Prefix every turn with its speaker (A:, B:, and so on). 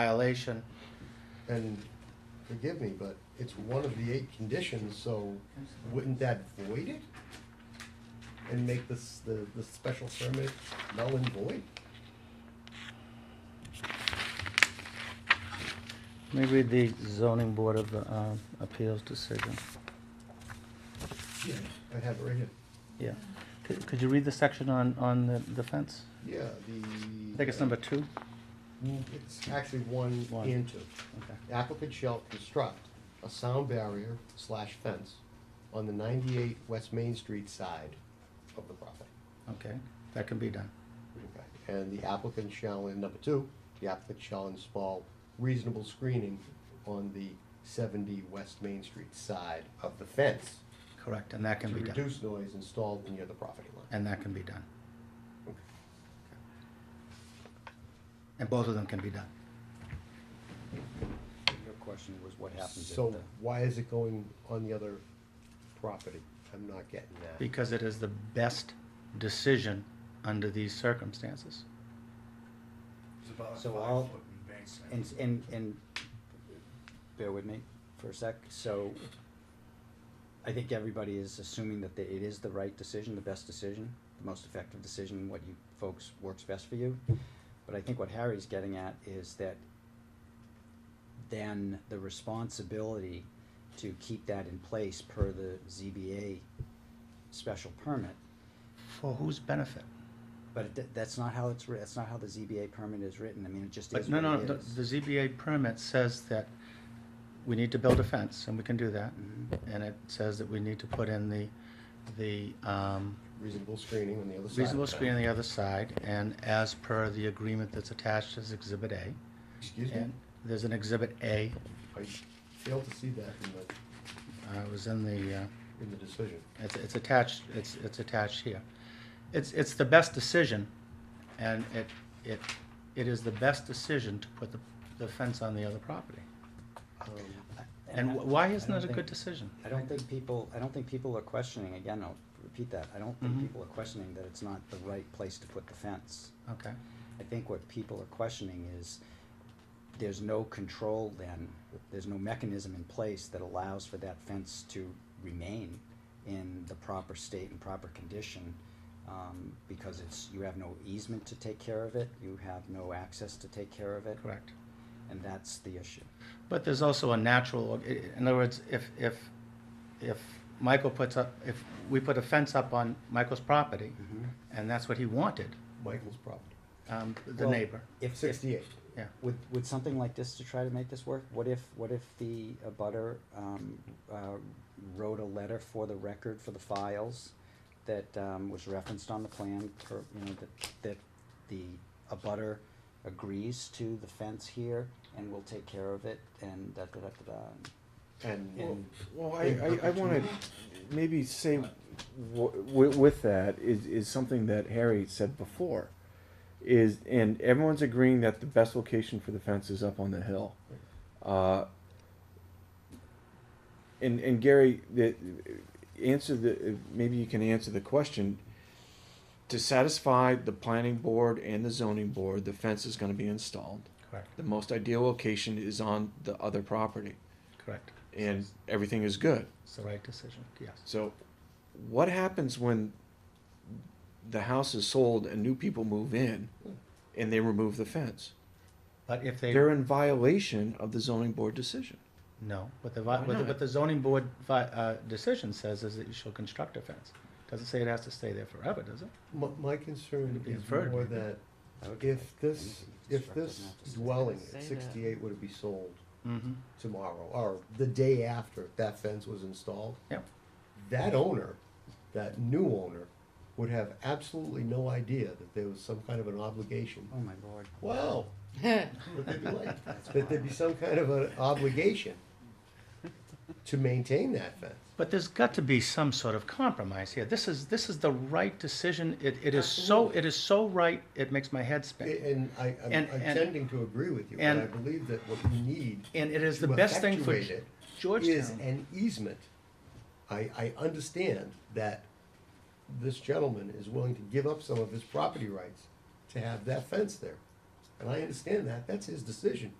A: violation.
B: And forgive me, but it's one of the eight conditions, so wouldn't that void it? And make this, the, the special permit null and void?
A: Let me read the zoning board of uh, appeals decision.
B: I have it right here.
A: Yeah. Could could you read the section on, on the- the fence?
B: Yeah,
A: I
B: the.
A: think it's number two.
B: Mm, It's actually one
A: One.
B: and two.
A: Okay.
B: applicant shall construct a sound barrier slash fence on the ninety-eight West Main Street side of the property.
A: Okay, that can be done.
B: And the applicant shall, in number two, the applicant shall install reasonable screening on the seventy West Main Street side of the fence
A: Correct, and that
B: to
A: can be done.
B: reduce noise installed near the property line.
A: And that can be done. And both of them can be done.
C: Your question was what happens if
B: So
C: the,
B: why is it going on the other property? I'm not getting that.
A: Because it is the best decision under these circumstances.
D: It's about a
C: So I'll-
D: five foot
C: and,
D: embankment.
C: and, and, bear with me for a sec, so I think everybody is assuming that the- it is the right decision, the best decision, the most effective decision, what you folks works best for you. But I think what Harry's getting at is that then the responsibility to keep that in place per the ZBA special permit
A: For whose benefit?
C: But it, th- that's not how it's, writ- that's not how the ZBA permit is written, I mean, it just
A: But
C: is
A: no,
C: what
A: no,
C: it
A: the the
C: is.
A: ZBA permit says that we need to build a fence, and we can do that.
C: Mhm.
A: And it says that we need to put in the, the um,
B: Reasonable screening on the other side.
A: reasonable screen on the other side, and as per the agreement that's attached as Exhibit A.
B: Excuse me?
A: And there's an Exhibit A,
B: I failed to see that in the,
A: uh, it was in the, uh,
B: in the decision.
A: it's, it's attached, it's, it's attached here. It's, it's the best decision, and it, it, it is the best decision to put the, the fence on the other property.
B: Um,
A: And
C: I-
A: wh- why
C: I
A: isn't it
C: don't
A: a good
C: think-
A: decision?
C: I don't think people, I don't think people are questioning, again, I'll repeat that, I don't think
A: Mhm.
C: people are questioning that it's not the right place to put the fence.
A: Okay,
C: I think what people are questioning is, there's no control then, there's no mechanism in place that allows for that fence to remain in the proper state and proper condition, um, because it's, you have no easement to take care of it, you have no access to take care of it.
A: correct.
C: And that's the issue.
A: But there's also a natural, i- in other words, if, if, if Michael puts up, if we put a fence up on Michael's property, and that's what he wanted,
B: Michael's property,
A: um, the
C: Well,
A: neighbor,
C: If, if,
B: sixty-eight.
A: yeah.
C: with, with something like this to try to make this work, what if, what if the abutter, um, uh, wrote a letter for the record, for the files, that, um, was referenced on the plan, for, you know, that, that the abutter agrees to the fence here and will take care of it, and da, da, da, da, da.
B: And
C: Yeah.
E: Well, well, I, I, I wanna maybe say w- with that is, is something that Harry said before. Is, and everyone's agreeing that the best location for the fence is up on the hill. Uh, and, and Gary, the, answer the, maybe you can answer the question. To satisfy the planning board and the zoning board, the fence is gonna be installed.
A: Correct,
E: The most ideal location is on the other property
A: correct.
E: and everything is good.
A: It's the right decision, yes.
E: So, what happens when the house is sold and new people move in and they remove the fence?
A: But if they,
E: They're in violation of the zoning board decision.
A: no, what the, vi- what
E: Why
A: the-
E: not?
A: what the zoning board vi- uh, decision says is that you shall construct a fence. Doesn't say it has to stay there forever, does it?
B: my, my concern
A: It'd be
B: is
A: inferred.
B: more that
C: I would-
B: if this, if
C: Doesn't
B: this
C: have to stay.
B: dwelling
F: Say
B: at
F: that.
B: sixty-eight were to be sold
A: Mm-hmm.
B: tomorrow, or the day after that fence was installed,
A: Yep,
B: that owner, that new owner, would have absolutely no idea that there was some kind of an obligation.
C: Oh, my lord.
B: Wow, would they be like, that there'd be some kind of an obligation to maintain that fence.
A: but there's got to be some sort of compromise here. This is, this is the right decision. It, it is so,
B: Absolutely.
A: it is so right, it makes my head spin.
B: And I, I'm
A: And-
B: I'm
A: and-
B: tending to agree with you, but
A: and-
B: I believe that what we need
A: And it is the
B: to
A: best thing for
B: effectuate it is
A: Georgetown.
B: an easement. I, I understand that this gentleman is willing to give up some of his property rights to have that fence there. And I understand that, that's his decision.